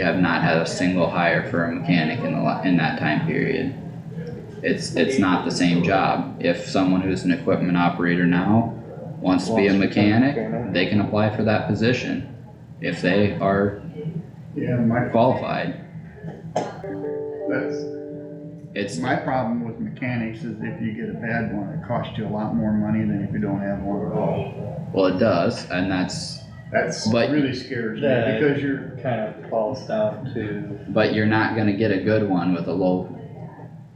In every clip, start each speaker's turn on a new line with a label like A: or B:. A: We have not had a single hire for a mechanic in the, la- in that time period. It's, it's not the same job. If someone who's an equipment operator now wants to be a
B: Wants to become a
A: mechanic,
B: mechanic.
A: they can apply for that position. If they are
C: Yeah, my,
A: qualified,
C: that's,
A: it's,
C: my problem with mechanics is if you get a bad one, it costs you a lot more money than if you don't have one at all.
A: well, it does, and that's,
C: That's
A: But-
C: really scares me
B: Yeah.
C: because you're,
B: Kind of falls down to,
A: but you're not gonna get a good one with a low,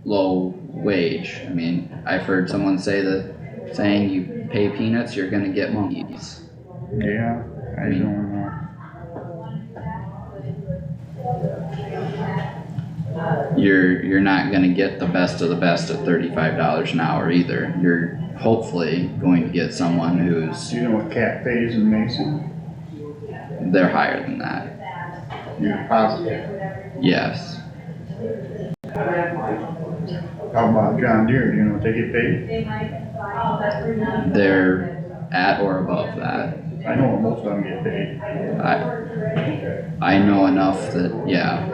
A: low wage. I mean, I've heard someone say the saying you pay peanuts, you're gonna get monkeys.
C: yeah, I don't know.
A: You're you're not gonna get the best of the best at thirty-five dollars an hour either. You're hopefully going to get someone who's
C: You know what cat pays in Mason?
A: they're higher than that.
C: You're positive.
A: Yes.
C: How about John Deere, you know what they get paid?
A: They're at or above that.
C: I know what most of them get paid.
A: I I know enough that yeah.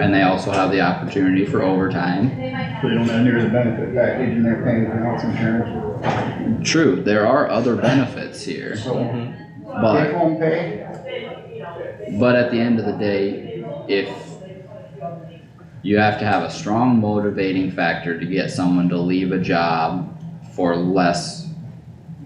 A: And they also have the opportunity for overtime.
C: They don't have near the benefit package and they're paying for health insurance.
A: True, there are other benefits here,
C: So, take
A: but,
C: home pay,
A: but at the end of the day, if you have to have a strong motivating factor to get someone to leave a job for less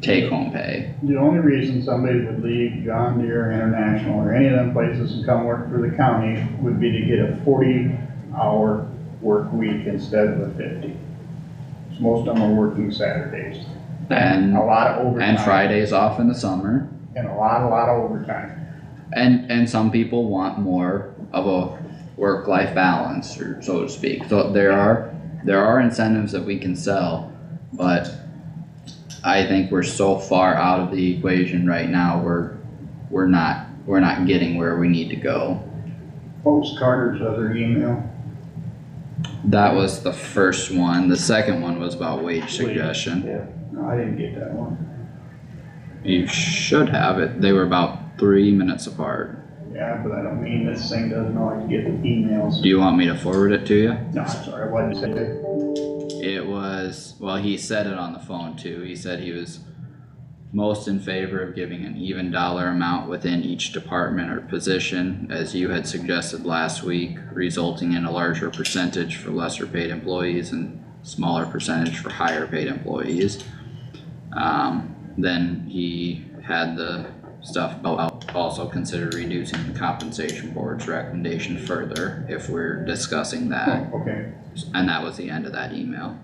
A: take-home pay.
C: the only reason somebody would leave John Deere International or any of them places and come work for the county would be to get a forty hour work week instead of a fifty. Most of them are working Saturdays.
A: And,
C: A lot of overtime.
A: and Fridays off in the summer,
C: And a lot, a lot of overtime.
A: and, and some people want more of a work-life balance, or so to speak. So there are, there are incentives that we can sell, but I think we're so far out of the equation right now, we're, we're not, we're not getting where we need to go.
C: What was Carter's other email?
A: That was the first one, the second one was about wage suggestion.
C: No, I didn't get that one.
A: You should have it, they were about three minutes apart.
C: Yeah, but I don't mean this thing doesn't always get the emails.
A: Do you want me to forward it to you?
C: No, I'm sorry, I wasn't saying that.
A: It was, well, he said it on the phone too. He said he was most in favor of giving an even dollar amount within each department or position, as you had suggested last week, resulting in a larger percentage for lesser paid employees and smaller percentage for higher paid employees. Um, then he had the stuff about also consider reducing the compensation board's recommendation further if we're discussing that.
C: Okay,
A: And that was the end of that email.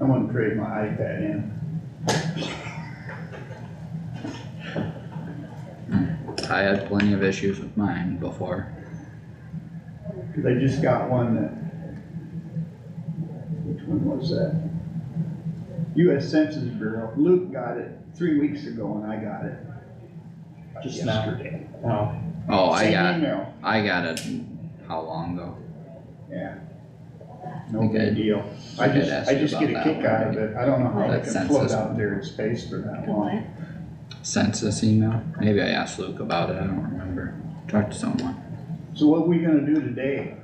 C: I'm gonna trade my iPad in.
A: I had plenty of issues with mine before.
C: Cause I just got one that. Which one was that? US Census Bureau. Luke got it three weeks ago and I got it.
B: Just now.
C: yesterday.
B: no,
A: Oh, I
C: Same
A: got,
C: email.
A: I got it, how long ago?
C: Yeah. No
A: Okay.
C: big deal. I
A: I did
C: just,
A: ask
C: I
A: you
C: just
A: about
C: get a
A: that
C: kick
A: one,
C: out of
A: right?
C: it. I don't know how
A: That
C: they can float
A: census.
C: out there in space for that long.
A: Census email? Maybe I asked Luke about it, I don't remember. Talked to someone.
C: So what are we gonna do today?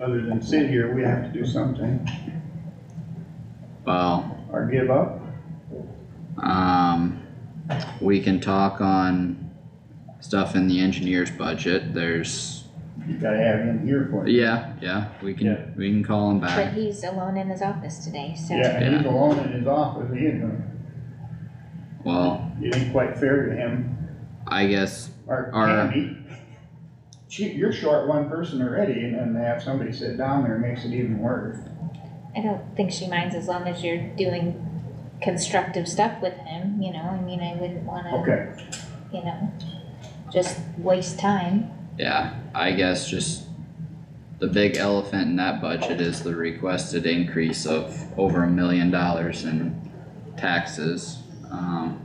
C: Other than sit here, we have to do something
A: Well,
C: or give up.
A: um, we can talk on stuff in the engineer's budget. There's,
C: You gotta have him here for it.
A: yeah, yeah, we
B: Yeah.
A: can, we can call him
D: But
A: back.
D: he's alone in his office today, so.
C: Yeah, and he's
A: Yeah.
C: alone in his office. He ain't gonna,
A: Well,
C: it ain't quite fair to him
A: I guess,
C: or
A: Or-
C: Candy. She, you're short one person already and then to have somebody sit down there makes it even worse.
D: I don't think she minds as long as you're doing constructive stuff with him, you know, I mean, I wouldn't wanna,
C: Okay,
D: you know, just waste time.
A: yeah, I guess just the big elephant in that budget is the requested increase of over a million dollars in taxes. Um,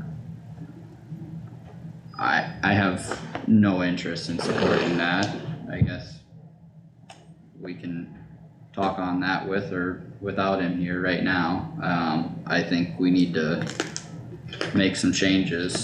A: I, I have no interest in supporting that, I guess. We can talk on that with or without him here right now. Um, I think we need to make some changes.